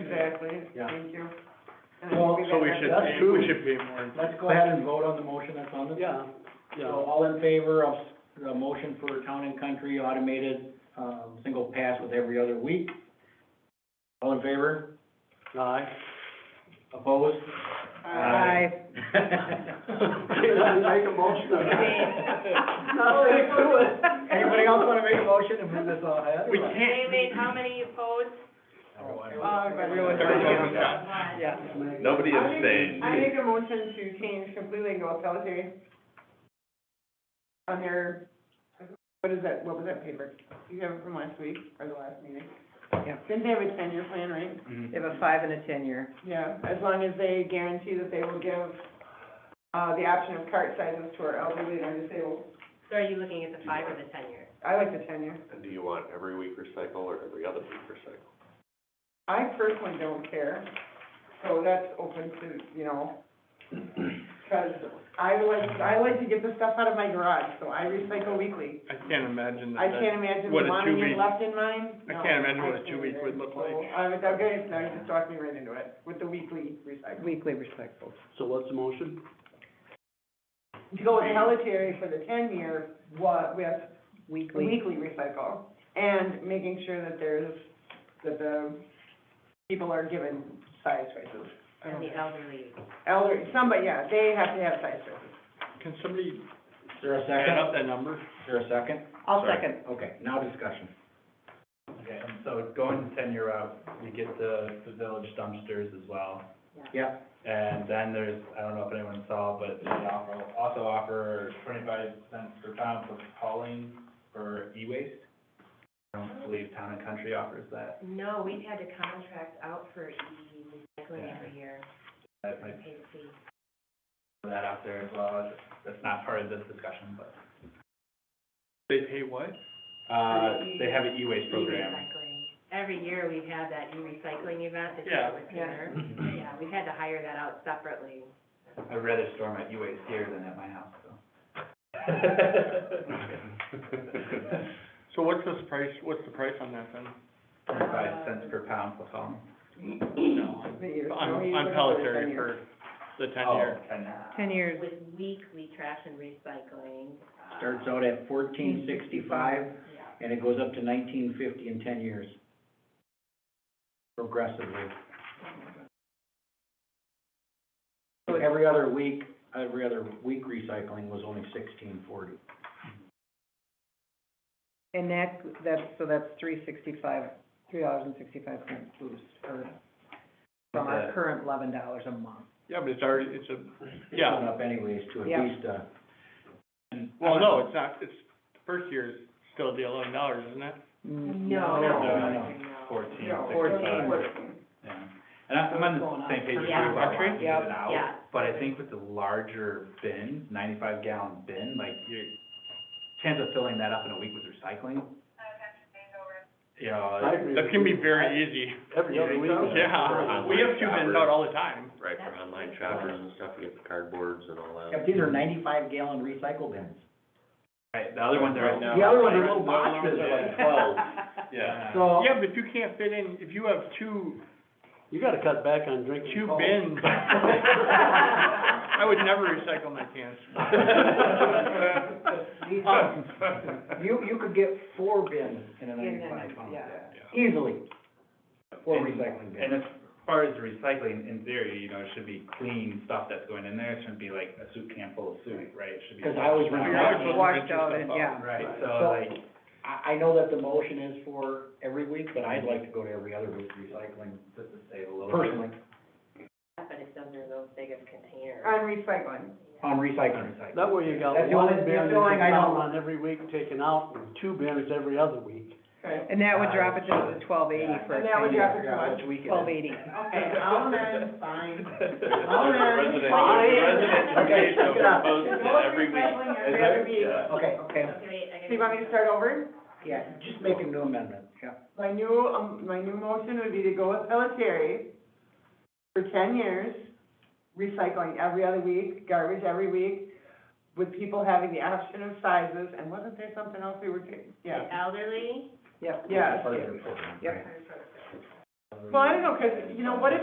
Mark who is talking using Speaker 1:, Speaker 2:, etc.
Speaker 1: Exactly,
Speaker 2: Yeah.
Speaker 1: thank you. And I
Speaker 2: Well,
Speaker 1: think
Speaker 3: So we
Speaker 1: better
Speaker 3: should,
Speaker 1: have-
Speaker 2: That's
Speaker 3: be-
Speaker 2: true.
Speaker 3: we should be more,
Speaker 2: Let's go ahead and vote on the motion that's on the.
Speaker 4: Yeah,
Speaker 2: So
Speaker 4: yeah,
Speaker 2: all in favor of the motion for town and country automated, um, single pass with every other week? All in favor?
Speaker 4: aye.
Speaker 2: Opposed?
Speaker 1: Aye.
Speaker 4: I make a motion.
Speaker 2: Anybody else wanna make a motion and move this on ahead? Oh,
Speaker 3: we can't.
Speaker 5: They made how many opposed?
Speaker 1: Uh, everyone-
Speaker 3: Everyone was out.
Speaker 1: Yeah.
Speaker 3: Nobody
Speaker 1: I make-
Speaker 3: abstained.
Speaker 1: I make a motion to change completely and go with Pelletary. On their, what is that, what was that paper? You have it from last week or the last meeting?
Speaker 6: Yeah.
Speaker 1: Didn't they have a ten-year plan, right?
Speaker 6: They have a five and a ten-year.
Speaker 1: Yeah, as long as they guarantee that they will give, uh, the option of cart sizes to our elderly and our disabled.
Speaker 5: So are you looking at the five or the ten year?
Speaker 1: I like the ten-year.
Speaker 7: And do you want every week recycle or every other week recycle?
Speaker 1: I personally don't care, so that's open to, you know, because I like, I like to get the stuff out of my garage, so I recycle weekly.
Speaker 3: I can't imagine
Speaker 1: I
Speaker 3: that, that-
Speaker 1: can't imagine
Speaker 3: What a
Speaker 1: wanting it
Speaker 3: two-week-
Speaker 1: left in mine.
Speaker 3: I
Speaker 1: No,
Speaker 3: can't imagine what a
Speaker 1: can't
Speaker 3: two-week
Speaker 1: either.
Speaker 3: would look
Speaker 1: So,
Speaker 3: like.
Speaker 1: I was, okay, now you just talked me right into it, with the weekly recycling.
Speaker 6: weekly recyclables.
Speaker 4: So what's the motion?
Speaker 1: To go with Pelletary for the ten-year, what, with
Speaker 6: Weekly,
Speaker 1: weekly recycle, and making sure that there's, that the people are given size choices. I
Speaker 5: And
Speaker 1: don't
Speaker 5: the
Speaker 1: know.
Speaker 5: elderly,
Speaker 1: Elder, somebody, yeah, they have to have size choices.
Speaker 3: can
Speaker 2: Is
Speaker 3: somebody
Speaker 2: there a
Speaker 3: add
Speaker 2: second?
Speaker 3: up that number?
Speaker 2: Is there a second?
Speaker 6: I'll
Speaker 3: Sorry.
Speaker 6: second.
Speaker 2: Okay, now discussion.
Speaker 8: Okay, and so going the ten-year route, you get the, the village dumpsters as well.
Speaker 2: Yeah.
Speaker 8: And then there's, I don't know if anyone saw, but they offer, also offer twenty-five cents per pound for hauling for e-waste. I don't believe Town and Country offers that.
Speaker 5: no, we've had to contract out for the recycling every year,
Speaker 8: That
Speaker 5: we
Speaker 8: might
Speaker 5: pay the fee.
Speaker 8: put that out there as well. That's not part of this discussion, but,
Speaker 3: They pay what?
Speaker 8: uh, they have an e-waste program.
Speaker 5: E-recycling. Every year we've had that e-recycling event, this
Speaker 3: Yeah.
Speaker 5: year with Tanner. Yeah, we've had to hire that out separately.
Speaker 8: I'd rather store my e-waste here than at my house, so.
Speaker 3: So what's this price, what's the price on that then?
Speaker 8: Twenty-five cents per pound for hauling.
Speaker 3: No,
Speaker 1: The years.
Speaker 3: I'm,
Speaker 1: No, you
Speaker 3: I'm
Speaker 1: look at the
Speaker 3: Pelletary
Speaker 1: 10 years.
Speaker 3: for the ten-year.
Speaker 8: Oh, ten.
Speaker 6: Ten years.
Speaker 5: Um, With weekly trash and recycling. uh,
Speaker 2: Starts out at fourteen sixty-five,
Speaker 5: Yeah,
Speaker 2: and it goes up to nineteen fifty in ten years. Progressively. So Every other week, every other week recycling was only sixteen forty.
Speaker 6: And that, that's, so that's three sixty-five, three dollars and sixty-five cents boost for, from our
Speaker 8: Okay.
Speaker 6: current eleven dollars a month.
Speaker 3: Yeah, but it's already, it's a,
Speaker 2: It's
Speaker 3: Yeah.
Speaker 2: gone up anyways to at
Speaker 6: Yeah.
Speaker 2: least, uh,
Speaker 3: well, no, it's not, it's, the first year is still the eleven dollars, isn't it?
Speaker 5: Oh, No,
Speaker 2: No,
Speaker 5: no,
Speaker 2: no,
Speaker 5: no.
Speaker 8: Fourteen,
Speaker 1: No,
Speaker 8: sixty-five. Yeah. And I'm I'm on
Speaker 6: Going
Speaker 8: the
Speaker 6: up.
Speaker 8: same page with you
Speaker 5: Yeah.
Speaker 8: about wanting to get it
Speaker 5: Yeah.
Speaker 8: out, but I think with the larger bins, ninety-five gallon bin, like your chance of filling that up in a week with recycling. You know,
Speaker 3: That can be very easy.
Speaker 7: Every other week.
Speaker 3: Yeah, we have two bins out all the time.
Speaker 7: Right, for online shoppers and stuff, you get the cardboards and all
Speaker 2: yeah,
Speaker 7: that.
Speaker 2: these are ninety-five gallon recycle bins.
Speaker 8: Right, the other ones are right now.
Speaker 2: The other ones are
Speaker 8: like-
Speaker 2: little boxes, they're like
Speaker 8: Twelve,
Speaker 3: Yeah.
Speaker 2: So,
Speaker 3: Yeah, but you can't fit in, if you have two,
Speaker 4: You gotta cut back on drinking.
Speaker 3: two
Speaker 4: coke.
Speaker 3: bins, I would never recycle my cans.
Speaker 2: these- you, you could get four bins in a
Speaker 6: In the
Speaker 2: ninety-five
Speaker 6: night,
Speaker 2: pound
Speaker 6: yeah.
Speaker 2: bag, easily, four recycling bins.
Speaker 8: And as far as recycling, in theory, you know, it should be clean stuff that's going in there, it shouldn't be like a soup can full of soup, right? It should be.
Speaker 2: 'Cause I always run
Speaker 3: You're
Speaker 2: out.
Speaker 3: always supposed to rinse
Speaker 6: Washed
Speaker 3: your
Speaker 6: out
Speaker 3: stuff
Speaker 6: and,
Speaker 3: out.
Speaker 6: yeah.
Speaker 8: Right, so
Speaker 2: So-
Speaker 8: like,
Speaker 2: I, I know that the motion is for every week, but I'd like to go to every other week recycling
Speaker 8: just to save a little bit.
Speaker 2: personally
Speaker 5: But it's under those big of containers.
Speaker 1: On recycling.
Speaker 2: on recycling.
Speaker 4: That way you got
Speaker 2: That's the
Speaker 4: one
Speaker 2: only-
Speaker 4: bin
Speaker 2: that's
Speaker 4: that you
Speaker 2: the only thing I
Speaker 4: count
Speaker 2: don't-
Speaker 4: on every week taken out, and two bins every other week.
Speaker 1: Okay,
Speaker 6: And that would drop it down to twelve eighty
Speaker 2: Yeah.
Speaker 6: for a
Speaker 1: Uh, And that would
Speaker 6: ten-year.
Speaker 1: drop it to what?
Speaker 2: Which week it is.
Speaker 6: Twelve eighty.
Speaker 1: okay, I'll amend, fine. I'll amend.
Speaker 7: Resident,
Speaker 1: Fine.
Speaker 7: resident
Speaker 2: Okay,
Speaker 7: education
Speaker 2: check it out.
Speaker 7: proposed
Speaker 1: Go
Speaker 7: that every
Speaker 1: with
Speaker 7: week.
Speaker 1: recycling every other week.
Speaker 7: Yeah.
Speaker 2: Okay, okay,
Speaker 5: Okay, wait, I gotta.
Speaker 1: So you want me to start over?
Speaker 2: yeah, just make a new amendment, yeah.
Speaker 1: My new, um, my new motion would be to go with Pelletary for ten years, recycling every other week, garbage every week, with people having the option of sizes, and wasn't there something else we were, ta- yeah,
Speaker 5: The elderly,
Speaker 6: Yep.
Speaker 1: yeah.
Speaker 2: Further,
Speaker 6: Yep.
Speaker 2: right.
Speaker 1: Well, I don't know, 'cause, you know, what if